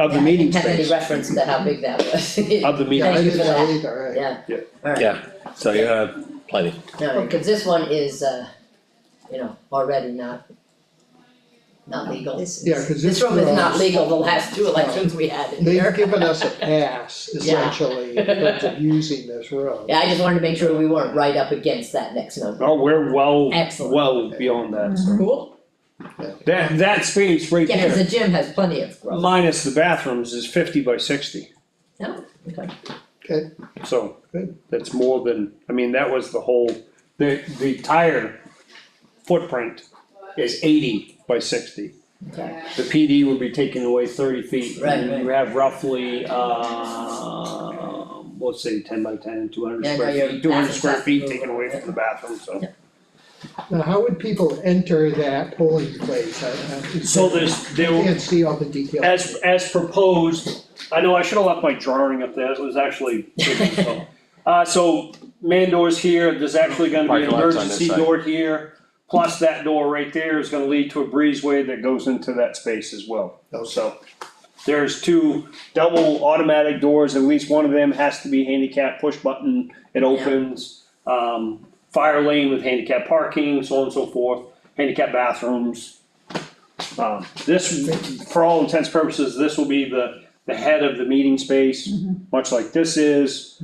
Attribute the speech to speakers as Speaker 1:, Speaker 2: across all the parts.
Speaker 1: Of the meeting
Speaker 2: Had any
Speaker 1: space,
Speaker 2: reference to how big that was.
Speaker 1: of the
Speaker 2: Yeah,
Speaker 1: meeting,
Speaker 2: I
Speaker 1: space.
Speaker 2: didn't know
Speaker 3: either,
Speaker 2: Yeah.
Speaker 1: Yeah.
Speaker 2: Alright,
Speaker 4: Yeah, so you have plenty.
Speaker 2: no, because this one is, uh, you know, already not, not legal.
Speaker 3: is- Yeah, 'cause
Speaker 2: This
Speaker 3: it's
Speaker 2: room is not
Speaker 3: gross.
Speaker 2: legal, the last two elections we had in
Speaker 3: They've
Speaker 2: here.
Speaker 3: given us a pass essentially in terms of using this room.
Speaker 2: Yeah, I just wanted to make sure we weren't right up against that next number.
Speaker 1: oh, we're well,
Speaker 2: Excellent.
Speaker 1: well beyond that, so.
Speaker 2: Cool.
Speaker 1: That, that space right
Speaker 2: Yeah, cause
Speaker 1: there,
Speaker 2: the gym has plenty of growth.
Speaker 1: minus the bathrooms, is fifty by sixty,
Speaker 2: Okay.
Speaker 1: so.
Speaker 3: Good.
Speaker 1: That's more than, I mean, that was the whole, the, the tire footprint is eighty by sixty.
Speaker 2: Okay.
Speaker 1: The PD would be taking away thirty feet,
Speaker 2: Right,
Speaker 1: and
Speaker 2: right.
Speaker 1: you have roughly, uh, let's say ten by ten, two hundred
Speaker 2: Yeah, no,
Speaker 1: square
Speaker 2: you're-
Speaker 1: feet, two hundred
Speaker 2: that's
Speaker 1: square
Speaker 2: exactly
Speaker 1: feet taken away from the bathroom, so.
Speaker 3: Now, how would people enter that polling place? I- I-
Speaker 1: So there's,
Speaker 3: I
Speaker 1: there,
Speaker 3: Can't see all the details.
Speaker 1: As, as proposed, I know I should have left my drawing up there, it was actually. Uh, so man doors here, there's actually gonna be an
Speaker 4: Parking lot's on this
Speaker 1: emergency
Speaker 4: side.
Speaker 1: door here. Plus that door right there is gonna lead to a breezeway that goes into that space as well. So there's two double automatic doors, at least one of them has to be handicap push button, it opens. Um, fire lane with handicap parking, so on and so forth, handicap bathrooms. Um, this, for all intents and purposes, this will be the, the head of the meeting space, much like this is.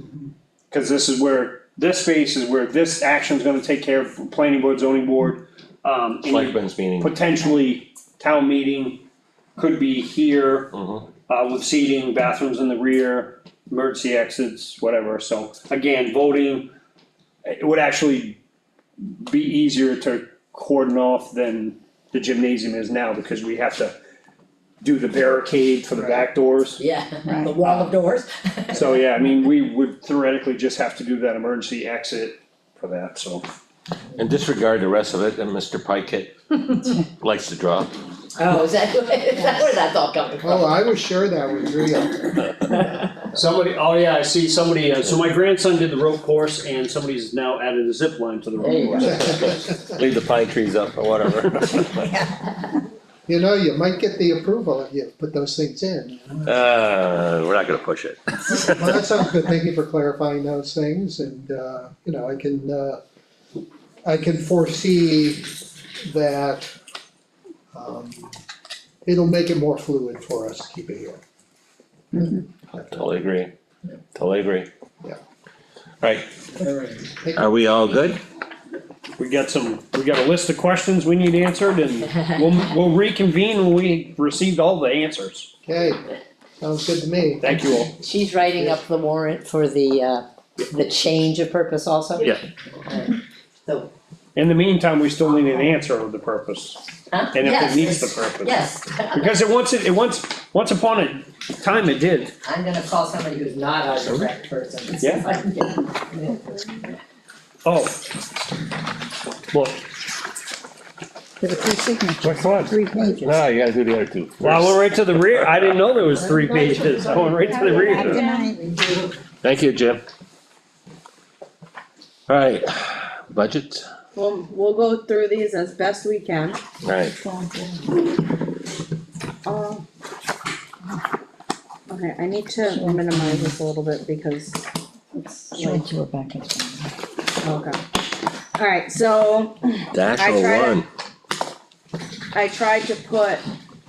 Speaker 1: Cause this is where, this space is where this action's gonna take care of for planning board, zoning board, um, and
Speaker 4: Selectmen's meeting.
Speaker 1: potentially town meeting could be here.
Speaker 4: Mhm.
Speaker 1: Uh, with seating, bathrooms in the rear, emergency exits, whatever, so again, voting, it would actually be easier to cordon off than the gymnasium is now, because we have to do the barricade for the back doors.
Speaker 2: Yeah,
Speaker 5: Right.
Speaker 2: the wall of doors.
Speaker 1: So, yeah, I mean, we would theoretically just have to do that emergency exit for that, so.
Speaker 4: And disregard the rest of it, and Mr. Pikett likes to draw.
Speaker 2: Oh, is that, is that where that's all coming from?
Speaker 3: Oh, I was sure that was real.
Speaker 1: Somebody, oh yeah, I see somebody, uh, so my grandson did the rope course and somebody's now added a zip line to the
Speaker 2: There you
Speaker 1: rope
Speaker 2: go.
Speaker 1: course.
Speaker 4: Leave the pine trees up or whatever.
Speaker 3: You know, you might get the approval if you put those things in.
Speaker 4: Uh, we're not gonna push it.
Speaker 3: Well, that sounds good, thank you for clarifying those things, and, uh, you know, I can, uh, I can foresee that, um, it'll make it more fluid for us to keep it here.
Speaker 4: Totally agree. Totally agree.
Speaker 3: Yeah.
Speaker 4: Right,
Speaker 3: Thank
Speaker 4: are we all good?
Speaker 1: We got some, we got a list of questions we need answered and we'll, we'll reconvene when we received all the answers.
Speaker 3: Okay, sounds good to me.
Speaker 1: Thank you all.
Speaker 2: She's writing up the warrant for the, uh, the change of purpose also?
Speaker 4: Yeah.
Speaker 2: Alright. So,
Speaker 1: In the meantime, we still need an answer of the purpose
Speaker 2: huh?
Speaker 1: and if
Speaker 2: Yes,
Speaker 1: it meets the
Speaker 2: it's-
Speaker 1: purpose.
Speaker 2: Yes,
Speaker 1: Because it once, it once, once upon a time it did.
Speaker 2: I'm gonna call somebody who's not a direct person. and see if I can get-
Speaker 1: Oh. Well,
Speaker 5: There were three signatures,
Speaker 4: Which one?
Speaker 5: three pages.
Speaker 4: No, you gotta do the other two.
Speaker 1: wow, we're right to the rear. I didn't know there was three pages going right to the
Speaker 5: Good
Speaker 1: rear.
Speaker 5: night.
Speaker 4: Thank you, Jim. Alright, budget,
Speaker 6: We'll, we'll go through these as best we can.
Speaker 4: alright,
Speaker 6: Uh, Okay, I need to minimize this a little bit because it's
Speaker 5: Sure,
Speaker 6: like,
Speaker 5: to Rebecca's.
Speaker 6: okay. Alright, so
Speaker 4: dash
Speaker 6: I
Speaker 4: oh
Speaker 6: tried it.
Speaker 4: one,
Speaker 6: I tried to put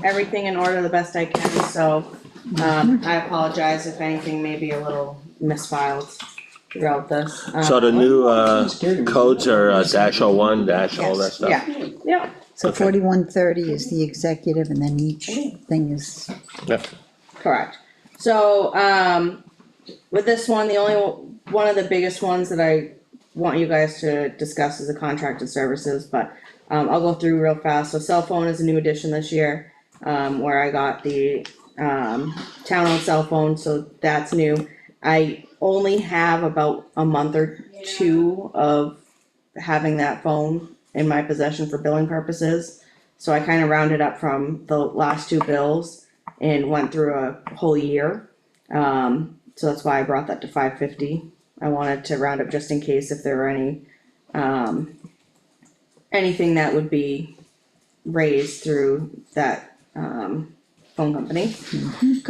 Speaker 6: everything in order the best I can, so, um, I apologize if anything may be a little misfiled throughout this. Um,
Speaker 4: so the new, uh, codes are uh, dash oh one, dash all that
Speaker 6: yes,
Speaker 4: stuff?
Speaker 6: Yeah, yeah,
Speaker 5: So
Speaker 4: Okay.
Speaker 5: forty-one thirty is the executive and then each thing is,
Speaker 4: Yep.
Speaker 6: Correct. So, um, with this one, the only, one of the biggest ones that I want you guys to discuss is the contracted services, but, um, I'll go through real fast. So cell phone is a new addition this year, um, where I got the, um, town-owned cell phone, so that's new. I only have about a month or two of having that phone in my possession for billing purposes. So I kind of rounded up from the last two bills and went through a whole year. Um, so that's why I brought that to five fifty. I wanted to round up just in case if there were any, um, anything that would be raised through that, um, phone company.